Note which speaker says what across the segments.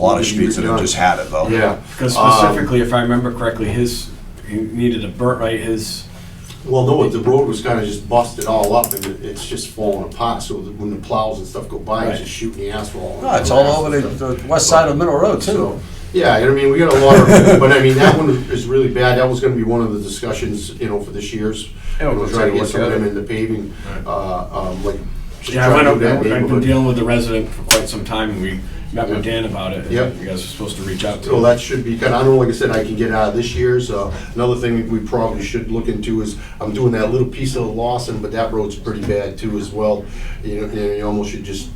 Speaker 1: A lot of streets that have just had it though.
Speaker 2: Yeah, Um,
Speaker 3: Because specifically, if I remember correctly, his, he needed a burn, right, his,
Speaker 2: well, no, the road was kinda just busted all up and it- it's just falling apart, so that when the plows and stuff go by, it's
Speaker 3: Right.
Speaker 2: just shooting the asphalt.
Speaker 1: No, it's all over the, the west side of Middle Road too.
Speaker 2: So, Yeah, I mean, we got a lot of, but I mean, that one is really bad, that was gonna be one of the discussions, you know, for this year's.
Speaker 3: Yeah, we'll
Speaker 2: We'll
Speaker 3: go
Speaker 2: try to
Speaker 3: take a
Speaker 2: get
Speaker 3: look
Speaker 2: some of
Speaker 3: at
Speaker 2: them
Speaker 3: it.
Speaker 2: in the paving, uh, um, like. just
Speaker 3: yeah, I
Speaker 2: try
Speaker 3: went
Speaker 2: to
Speaker 3: up
Speaker 2: do that
Speaker 3: there, I've been
Speaker 2: neighborhood.
Speaker 3: dealing with the resident for quite some time, and we met with Dan about it. and
Speaker 2: Yep.
Speaker 3: You guys were supposed to reach out to
Speaker 2: So
Speaker 3: him.
Speaker 2: that should be, kind of, I don't know, like I said, I can get out of this year's. Uh, Another thing we probably should look into is, I'm doing that little piece of Lawson, but that road's pretty bad too as well. You know, you you almost should just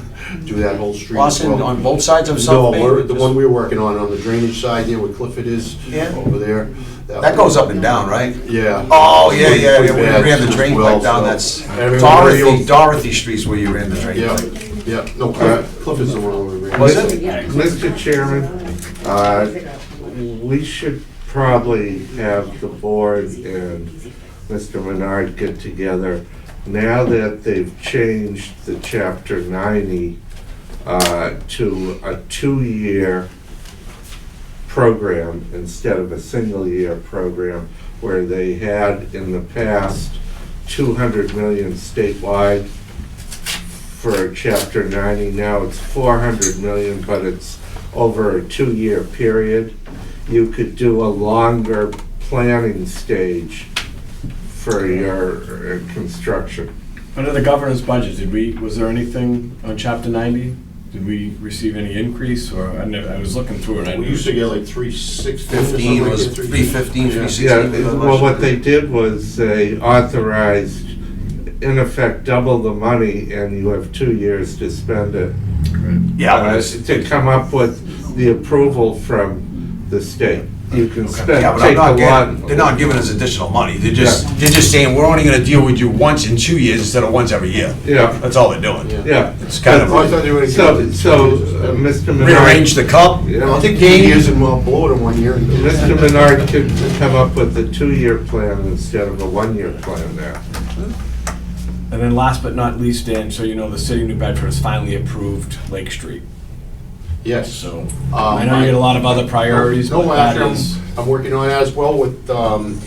Speaker 2: do that whole street as
Speaker 1: Lawson
Speaker 2: well.
Speaker 1: on both sides of
Speaker 2: No,
Speaker 1: South
Speaker 2: we're-
Speaker 1: Main.
Speaker 2: the one we're working on, on the drainage side there where Clifford is,
Speaker 1: Yeah.
Speaker 2: over there.
Speaker 1: That goes up and down, right?
Speaker 2: Yeah.
Speaker 1: Oh, yeah, yeah,
Speaker 2: Pretty
Speaker 1: yeah, we
Speaker 2: bad
Speaker 1: ran the drain
Speaker 2: as well,
Speaker 1: pipe down,
Speaker 2: so-
Speaker 1: that's
Speaker 2: Everyone
Speaker 1: Dorothy,
Speaker 2: really-
Speaker 1: Dorothy Street's where you ran the drain
Speaker 2: Yeah,
Speaker 1: pipe.
Speaker 2: yeah, no, Cliff- Clifford's the one where we ran.
Speaker 1: Was it?
Speaker 4: Mr. Chairman, uh, we should probably have the board and Mr. Menard get together. Now that they've changed the chapter ninety, uh, to a two-year program instead of a single-year program, where they had in the past two hundred million statewide, for chapter 90. Now it's 400 million, but it's over a two-year period. You could do a longer planning stage for your uh, construction.
Speaker 3: Under the governor's budget, did we, was there anything on chapter ninety? Did we receive any increase, or, I never, I was looking through it, I
Speaker 2: We
Speaker 3: knew.
Speaker 2: used to get like three sixteen.
Speaker 1: Fifteen was three fifteen, three
Speaker 2: Yeah.
Speaker 1: sixteen.
Speaker 2: we got
Speaker 1: was
Speaker 2: a
Speaker 1: the
Speaker 2: bunch
Speaker 4: Well,
Speaker 1: budget.
Speaker 4: what they did was they authorized, in effect, double the money, and you have two years to spend it.
Speaker 1: Yeah, but
Speaker 4: uh,
Speaker 1: it's-
Speaker 4: To come up with the approval from the state. You can
Speaker 1: Yeah,
Speaker 4: spend,
Speaker 1: but I'm
Speaker 4: take a
Speaker 1: not
Speaker 4: lot.
Speaker 1: getting, they're not giving us additional money, they're just, they're just saying, we're only gonna deal with you once in two years instead of once every year.
Speaker 4: Yeah,
Speaker 1: That's all they're doing.
Speaker 4: yeah.
Speaker 1: It's kind
Speaker 2: I
Speaker 1: of
Speaker 2: thought they were.
Speaker 4: So, so, uh, Mr. Menard.
Speaker 1: rearrange the cup,
Speaker 4: Yeah.
Speaker 2: I think two years and we'll blow it in one year.
Speaker 4: Mr. Menard could come up with a two-year plan instead of a one-year plan now.
Speaker 3: And then last but not least, Dan, so you know, the city of New Bedford has finally approved Lake Street,
Speaker 2: Yes.
Speaker 3: so.
Speaker 2: Um,
Speaker 3: I know you had a lot of other priorities, but
Speaker 2: No,
Speaker 3: that
Speaker 2: actually, I'm,
Speaker 3: is.
Speaker 2: I'm working on that as well with, um,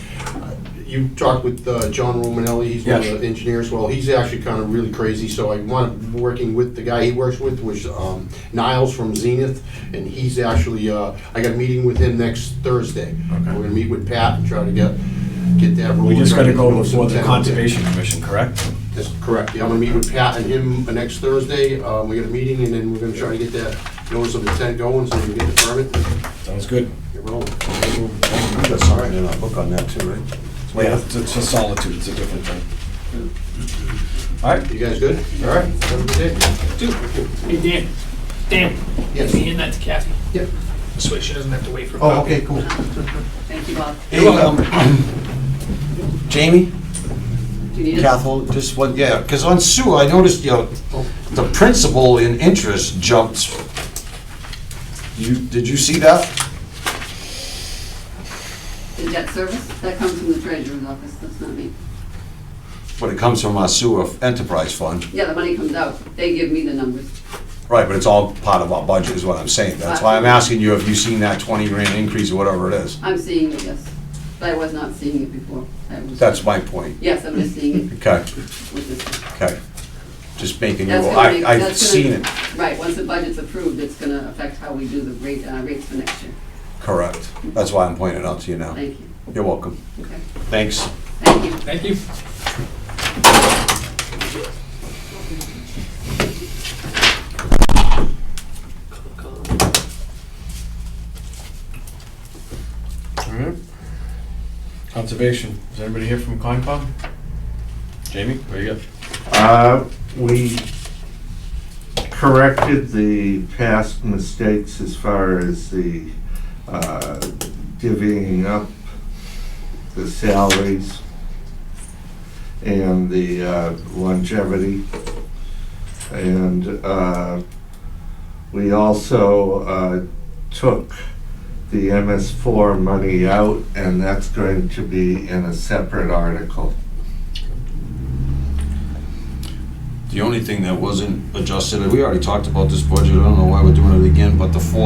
Speaker 2: you talked with, uh, John Romanelli, he's one of
Speaker 3: Yes.
Speaker 2: the engineers, well, he's actually kind of really crazy, so I want, working with the guy he works with, which, um, Niles from Zenith, and he's actually, uh, I got a meeting with him next Thursday. We're gonna meet with Pat and try to get, get that rolling.
Speaker 3: We just gotta go before
Speaker 2: for
Speaker 3: the Conservation Commission, correct?
Speaker 2: That's correct, yeah, I'm gonna meet with Pat and him uh, next Thursday, um, we got a meeting, and then we're gonna try to get that notice of intent going, so we can get the permit, and
Speaker 3: Sounds good.
Speaker 2: get rolling.
Speaker 1: You got something in our book on that too, right?
Speaker 3: Yeah, it's it's a solitude, it's a different thing. All right,
Speaker 2: You guys good? All right. Have a good day.
Speaker 5: Hey, Dan, Dan,
Speaker 2: Yes.
Speaker 5: give me in that to Kathy.
Speaker 2: Yep.
Speaker 5: This way she doesn't have to wait for a
Speaker 1: Oh,
Speaker 5: copy.
Speaker 1: okay, cool.
Speaker 6: Thank you, Bob.
Speaker 1: Hey, um, Jamie,
Speaker 6: Do you need us?
Speaker 1: Cathal, just one, yeah, because on sewer, I noticed, you know, the principal in interest jumped. You, did you see that?
Speaker 6: The debt service, that comes from the treasurer's office, that's not me.
Speaker 1: But it comes from our sewer enterprise fund.
Speaker 6: Yeah, the money comes out, they give me the numbers.
Speaker 1: Right, but it's all part of our budget is what I'm saying. That's why I'm asking you if you've seen that twenty grand increase or whatever it is.
Speaker 6: I'm seeing it, yes, but I was not seeing it before. I was-
Speaker 1: That's my point.
Speaker 6: Yes, I'm just seeing it
Speaker 1: Okay,
Speaker 6: with this.
Speaker 1: okay. Just making you,
Speaker 6: That's gonna
Speaker 1: I,
Speaker 6: make-
Speaker 1: I've
Speaker 6: that's gonna-
Speaker 1: seen it,
Speaker 6: Right, once the budget's approved, it's gonna affect how we do the rate, uh, rates for next year.
Speaker 1: correct. That's why I'm pointing it out to you now.
Speaker 6: Thank you,
Speaker 1: You're welcome.
Speaker 6: okay,
Speaker 1: Thanks.
Speaker 6: thank you.
Speaker 5: Thank you.
Speaker 3: all right. Conservation, is anybody here from Concom? Jamie, where you at?
Speaker 4: Uh, We corrected the past mistakes as far as the uh, divvying up the salaries and the uh, longevity. And uh, we also uh, took the MS4 money out, and that's going to be in a separate article.
Speaker 1: The only thing that wasn't adjusted, and we already talked about this budget, I don't know why we're doing it again, but the four